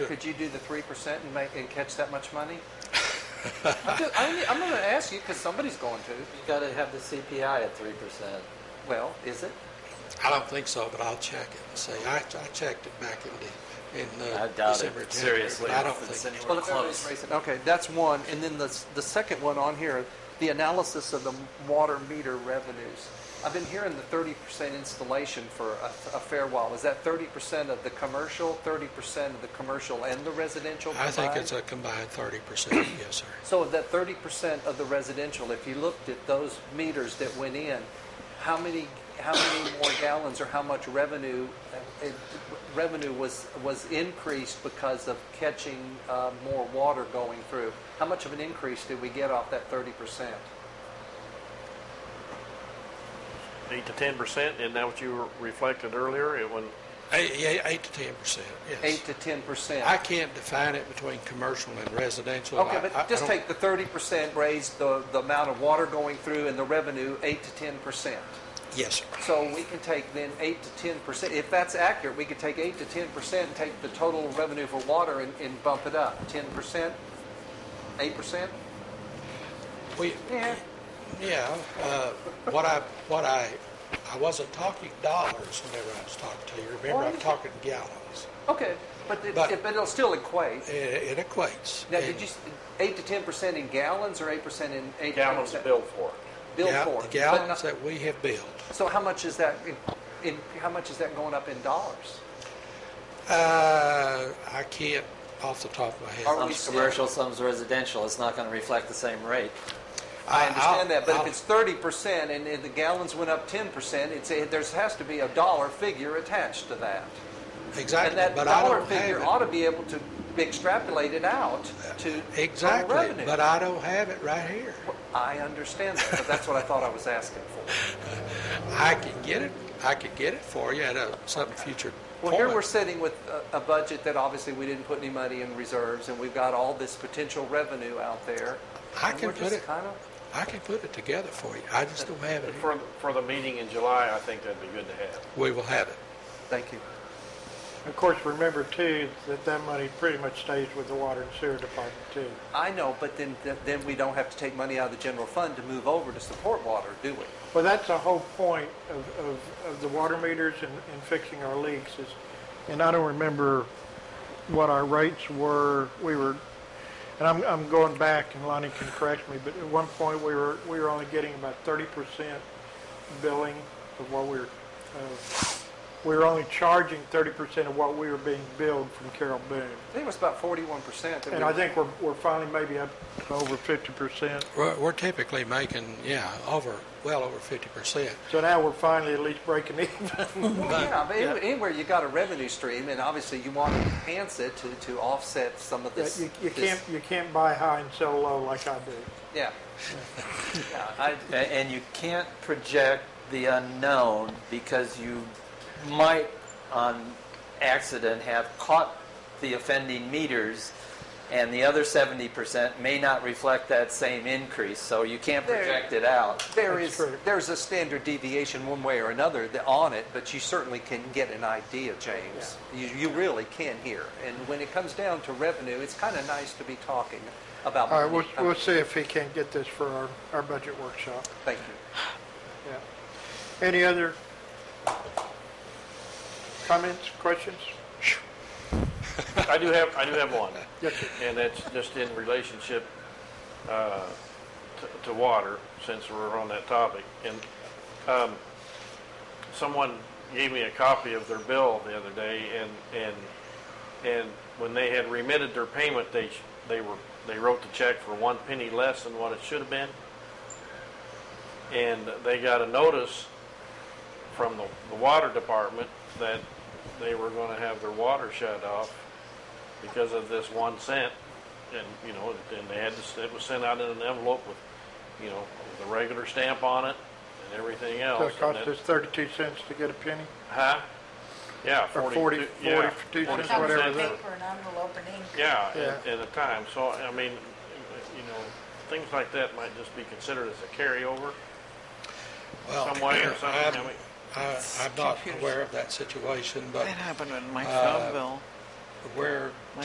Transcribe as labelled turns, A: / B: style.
A: Could you do the three percent and make, and catch that much money? I'm, just, I'm, I'm gonna ask you, because somebody's going to.
B: You gotta have the CPI at three percent.
A: Well, is it?
C: I don't think so, but I'll check it and see. I, I checked it back in, the- in uh,
B: I doubt
C: December,
B: it,
C: January,
B: seriously.
C: but I don't
B: if it's
C: think,
B: anywhere
A: Well, if everybody's
B: close.
A: raising- Okay, that's one, and then the, s- the second one on here, the analysis of the water meter revenues. I've been hearing the thirty percent installation for a, a fair while. Is that thirty percent of the commercial, thirty percent of the commercial and the residential
C: I
A: combined?
C: think it's a combined thirty percent, yes, sir.
A: So of that thirty percent of the residential, if you looked at those meters that went in, how many, how many more gallons or how much revenue, uh, it- revenue was, was increased because of catching uh, more water going through? How much of an increase did we get off that thirty percent?
D: eight to ten percent, isn't that what you reflected earlier? It when
C: Eight, yeah, eight to ten percent,
A: Eight
C: yes.
A: to ten percent?
C: I can't define it between commercial and residential.
A: Okay,
C: I- I- I
A: but just
C: don't-
A: take the thirty percent, raise the, the amount of water going through and the revenue, eight to ten percent.
C: Yes, sir.
A: So we can take then eight to ten percent, if that's accurate, we could take eight to ten percent and take the total revenue for water and, and bump it up, ten percent, eight percent?
C: We,
A: Yeah.
C: yeah, uh, what I, what I, I wasn't talking dollars whenever I was talking to you. Remember, I'm
A: Well,
C: talking gallons.
A: Okay, but it,
C: But-
A: it- but it'll still equate.
C: It, it equates.
A: Now,
C: And-
A: did you, s- eight to ten percent in gallons or eight percent in? eight
D: gallons
A: percent-
D: billed for.
A: Billed
C: Yeah,
A: for.
C: The
A: But
C: gallons
A: not-
C: that we have built.
A: So how much is that, in, in, how much is that going up in dollars?
C: Uh, I can't off the top of my head.
A: Are we
B: Some's commercial, some's residential, it's not gonna reflect the same rate.
A: I
C: I'll-
A: understand that, but
C: I'll-
A: if it's thirty percent and, and the gallons went up ten percent, it's, a- there's, has to be a dollar figure attached to that. And
C: Exactly,
A: that
C: but I
A: dollar
C: don't
A: figure
C: have
A: ought
C: it.
A: to be able to be extrapolated out to total
C: Exactly,
A: revenue.
C: but I don't have it right here.
A: I understand that, but that's what I thought I was asking for.
C: I can get it, I could get it for you at a, some future
A: Well, here
C: point.
A: we're sitting with a, a budget that obviously we didn't put any money in reserves, and we've got all this potential revenue out there.
C: I
A: and
C: can
A: we're
C: put
A: just
C: it,
A: kinda-
C: I can put it together for you. I just don't have it. here.
D: For, for the meeting in July, I think that'd be good to have.
C: We will have it.
A: Thank you.
E: Of course, remember too, that that money pretty much stays with the water and sewer department too.
A: I know, but then, then we don't have to take money out of the general fund to move over to support water, do we?
E: Well, that's the whole point of, of, of the water meters and, and fixing our leaks is, and I don't remember what our rates were, we were, and I'm, I'm going back and Lonnie can correct me, but at one point we were, we were only getting about thirty percent billing of what we were, uh, we were only charging thirty percent of what we were being billed from Carroll Boone.
A: I think it was about forty-one percent.
E: And I think we're, we're finally maybe up to over fifty percent.
C: We're, we're typically making, yeah, over, well over fifty percent.
E: So now we're finally at least breaking even.
A: Yeah, but any- anywhere you got a revenue stream, and obviously you want to enhance it to, to offset some of this.
E: You, you
A: this-
E: can't, you can't buy high and sell low like I do.
A: Yeah. Yeah, I,
B: A- And you can't project the unknown because you might, on accident, have caught the offending meters, and the other seventy percent may not reflect that same increase, so you can't
A: There-
B: project it out.
A: there
E: That's
A: is,
E: true.
A: there's a standard deviation one way or another that- on it, but you certainly can get an idea, James. You, you really can here. And when it comes down to revenue, it's kind of nice to be talking about.
E: All right, we'll,
A: money.
E: we'll see if he can get this for our, our budget workshop.
A: Thank you.
E: Yeah. Any other comments, questions?
D: I do have, I do have one.
E: Yes, sir.
D: And that's just in relationship uh, to- to water, since we're on that topic. And um, someone gave me a copy of their bill the other day, and, and, and when they had remitted their payment, they, sh- they were, they wrote the check for one penny less than what it should have been. And they got a notice from the, the water department that they were going to have their water shut off because of this one cent, and, you know, and they had this, it was sent out in an envelope with, you know, with a regular stamp on it and everything else.
E: So it
D: and
E: cost
D: that-
E: us thirty-two cents to get a penny?
D: Huh? Yeah,
E: Or
D: forty.
E: 40
D: yeah, 40
E: 42
D: cents.
E: cents, whatever
F: Comes in
E: that-
F: paper and envelope and ink.
D: Yeah, at,
E: Yeah.
D: at a time, so, I mean, you know, things like that might just be considered as a carryover.
C: Well,
D: Some way or something,
C: I'm-
D: I mean-
C: I, I'm not aware of that situation, but
G: That happened in my
C: Uh,
G: phone bill.
C: where